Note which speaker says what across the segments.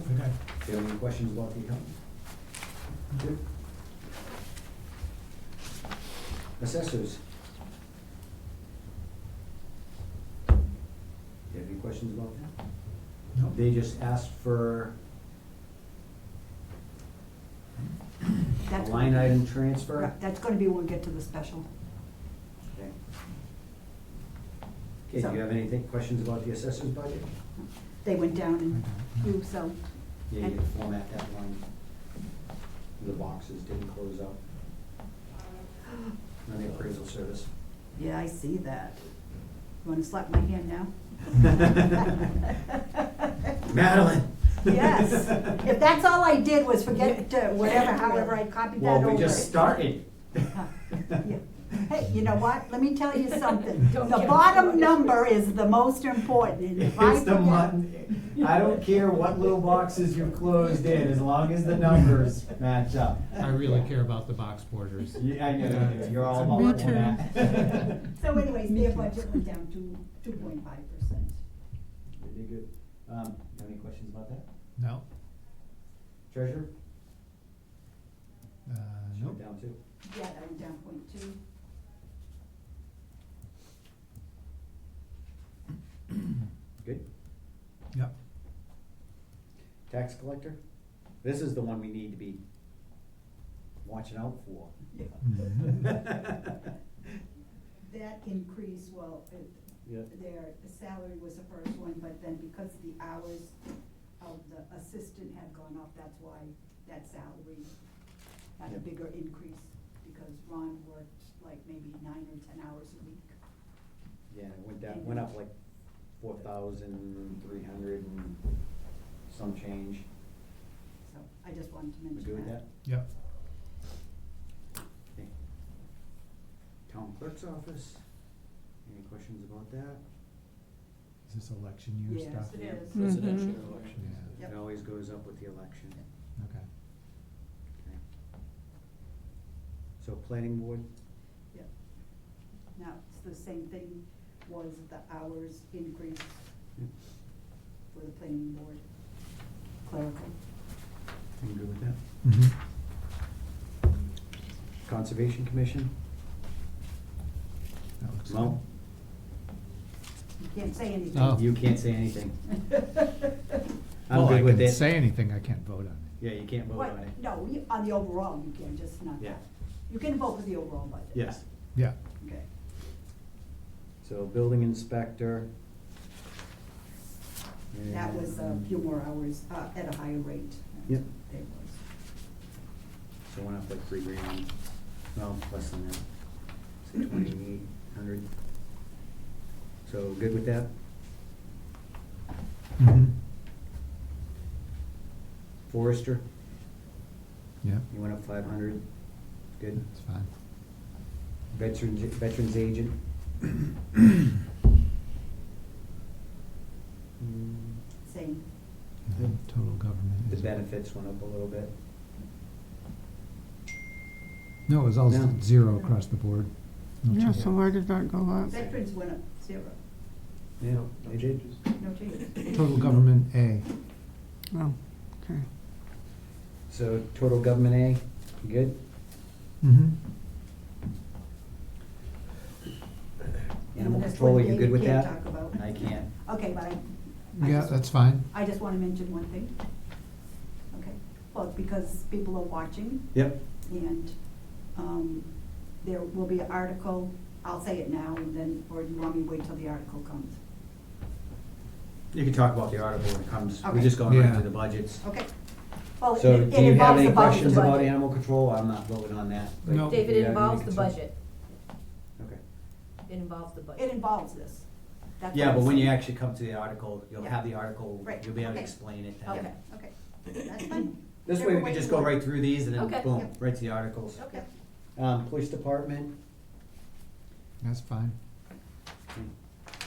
Speaker 1: Do you have any questions about the account? Good. Assessors. Do you have any questions about that?
Speaker 2: No.
Speaker 1: They just asked for a
Speaker 3: That's
Speaker 1: line
Speaker 3: gonna be-
Speaker 1: item transfer.
Speaker 3: Right, That's gonna be when we get to the special.
Speaker 1: Okay, Okay. do
Speaker 3: So-
Speaker 1: you have any questions about the assessors budget?
Speaker 3: They went down and you, so,
Speaker 1: Yeah, you
Speaker 3: I-
Speaker 1: had to format that line. The boxes didn't close out. On the appraisal service.
Speaker 3: yeah, I see that. You wanna slap my hand now?
Speaker 1: Madeline!
Speaker 3: Yes, if that's all I did was forget to, whatever, however I copied that
Speaker 1: Well,
Speaker 3: over.
Speaker 1: we just started.
Speaker 3: Yeah. Hey, you know what, let me tell you something,
Speaker 4: Don't
Speaker 3: the
Speaker 4: get
Speaker 3: bottom
Speaker 4: started.
Speaker 3: number is the most important, and if I
Speaker 2: It's the
Speaker 3: forget-
Speaker 2: mutton, I don't care what little boxes you closed in, as long as the numbers match up.
Speaker 5: I really care about the box borders.
Speaker 2: Yeah, I know, you do. you're all
Speaker 1: Me
Speaker 2: about
Speaker 1: too.
Speaker 2: that.
Speaker 3: So anyways, their budget went down to two point five percent.
Speaker 1: You did good. Um, you have any questions about that?
Speaker 5: No,
Speaker 1: Treasurer?
Speaker 5: uh,
Speaker 1: She
Speaker 5: nope.
Speaker 1: went Down too.
Speaker 3: Yeah, that went down point two.
Speaker 1: Good.
Speaker 5: Yep.
Speaker 1: Tax collector? This is the one we need to be watching out for.
Speaker 3: Yeah. That increase, well, it-
Speaker 1: Yeah.
Speaker 3: their salary was the first one, but then because the hours of the assistant had gone up, that's why that salary had
Speaker 1: Yeah.
Speaker 3: a bigger increase, because Ron worked like maybe nine or ten hours a week.
Speaker 1: Yeah, it went down, went up like four thousand three hundred and some change.
Speaker 3: So I just wanted to
Speaker 1: We
Speaker 3: mention that.
Speaker 1: good with that?
Speaker 5: Yep.
Speaker 1: Okay. Town clerk's office, any questions about that?
Speaker 5: Is this election year
Speaker 3: Yes,
Speaker 5: stuff?
Speaker 3: it is.
Speaker 6: Mm-hmm. Presidential
Speaker 5: Yeah,
Speaker 6: elections.
Speaker 3: Yep.
Speaker 1: It always goes up with the election.
Speaker 5: okay.
Speaker 1: Okay. So planning board,
Speaker 3: Yep. Now, it's the same thing was the hours increase for the planning board clerical.
Speaker 1: I'm good with that.
Speaker 5: Mm-hmm.
Speaker 1: Conservation commission,
Speaker 5: That looks
Speaker 1: Mo,
Speaker 3: You can't say anything.
Speaker 5: Oh.
Speaker 1: you can't say anything.
Speaker 5: good.
Speaker 1: I'm good with
Speaker 5: Well, I
Speaker 1: it.
Speaker 5: can say anything, I can't vote on it.
Speaker 1: Yeah, you can't vote
Speaker 3: What,
Speaker 1: on it.
Speaker 3: no, you- on the overall, you can, just not
Speaker 1: Yeah.
Speaker 3: that. You can vote for the overall budget.
Speaker 1: Yes.
Speaker 5: Yeah,
Speaker 3: Okay.
Speaker 1: So building inspector.
Speaker 3: That was a few more hours, uh, at a higher rate.
Speaker 1: Yep.
Speaker 3: It was.
Speaker 1: So went up like three grand, well, less than that, so twenty-eight hundred. So good with that?
Speaker 5: mhm,
Speaker 1: Forester,
Speaker 5: yeah,
Speaker 1: you went up five hundred, good.
Speaker 5: it's fine.
Speaker 1: Veterans, veterans agent. Mm,
Speaker 3: Same.
Speaker 5: And then Total government
Speaker 1: The
Speaker 5: is.
Speaker 1: benefits went up a little bit.
Speaker 5: No, it was all
Speaker 1: No.
Speaker 5: zero across the board. No
Speaker 4: Mm-hmm.
Speaker 6: Yeah,
Speaker 5: change.
Speaker 6: so why did that go up?
Speaker 3: Veterans went up zero,
Speaker 1: Yeah, they did.
Speaker 3: no changes.
Speaker 5: Total government A,
Speaker 6: Oh, okay.
Speaker 1: So total government A, good?
Speaker 5: mhm,
Speaker 1: Animal
Speaker 3: That's
Speaker 1: control,
Speaker 3: one
Speaker 1: you
Speaker 3: thing
Speaker 1: good with
Speaker 3: can't
Speaker 1: that?
Speaker 3: talk about.
Speaker 1: I can't.
Speaker 3: Okay, but I. I
Speaker 5: yeah,
Speaker 3: just-
Speaker 5: that's fine.
Speaker 3: I just wanna mention one thing. Okay, well, because people are watching
Speaker 1: Yep.
Speaker 3: and, um, there will be an article, I'll say it now and then, or you want me to wait till the article comes?
Speaker 1: You can talk about the article when it comes, we're
Speaker 3: Okay.
Speaker 1: just going right
Speaker 5: Yeah.
Speaker 1: to the budgets.
Speaker 3: Okay. Well, it-
Speaker 1: So do you
Speaker 3: it
Speaker 1: have
Speaker 3: involves
Speaker 1: any
Speaker 3: the budget,
Speaker 1: questions about
Speaker 3: but-
Speaker 1: animal control? I'm not voting on that. but
Speaker 5: No.
Speaker 1: do
Speaker 4: David,
Speaker 1: you
Speaker 4: it
Speaker 1: have
Speaker 4: involves the
Speaker 1: any concerns?
Speaker 4: budget.
Speaker 1: Okay.
Speaker 4: It involves the
Speaker 3: It
Speaker 4: budget.
Speaker 3: involves this. That's
Speaker 1: Yeah,
Speaker 3: what
Speaker 1: but
Speaker 3: I'm
Speaker 1: when you
Speaker 3: saying.
Speaker 1: actually come to the article, you'll
Speaker 3: Yeah.
Speaker 1: have the article,
Speaker 3: Right,
Speaker 1: you'll be able to
Speaker 3: okay.
Speaker 1: explain it then.
Speaker 3: Okay, okay, that's fine.
Speaker 1: This way
Speaker 3: Whichever
Speaker 1: we can just go
Speaker 3: you want.
Speaker 1: right through these and then
Speaker 4: Okay.
Speaker 1: boom,
Speaker 3: Yep.
Speaker 1: right to the articles.
Speaker 4: Okay.
Speaker 1: Um, police department,
Speaker 5: That's fine.
Speaker 3: That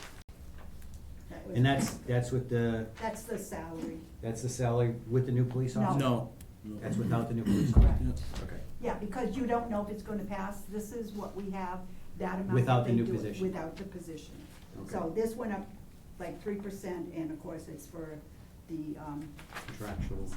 Speaker 3: was-
Speaker 1: and that's, that's with the,
Speaker 3: That's the salary,
Speaker 1: that's the salary with the new police
Speaker 3: No.
Speaker 1: officer?
Speaker 6: No.
Speaker 1: That's without the new police officer?
Speaker 3: correct.
Speaker 1: Okay.
Speaker 3: Yeah, because you don't know if it's gonna pass, this is what we have, that amount.
Speaker 1: Without the
Speaker 3: that they
Speaker 1: new
Speaker 3: do it
Speaker 1: position.
Speaker 3: Without the position. So
Speaker 1: Okay.
Speaker 3: this went up like three percent, and of course, it's for the, um,
Speaker 1: Contractual.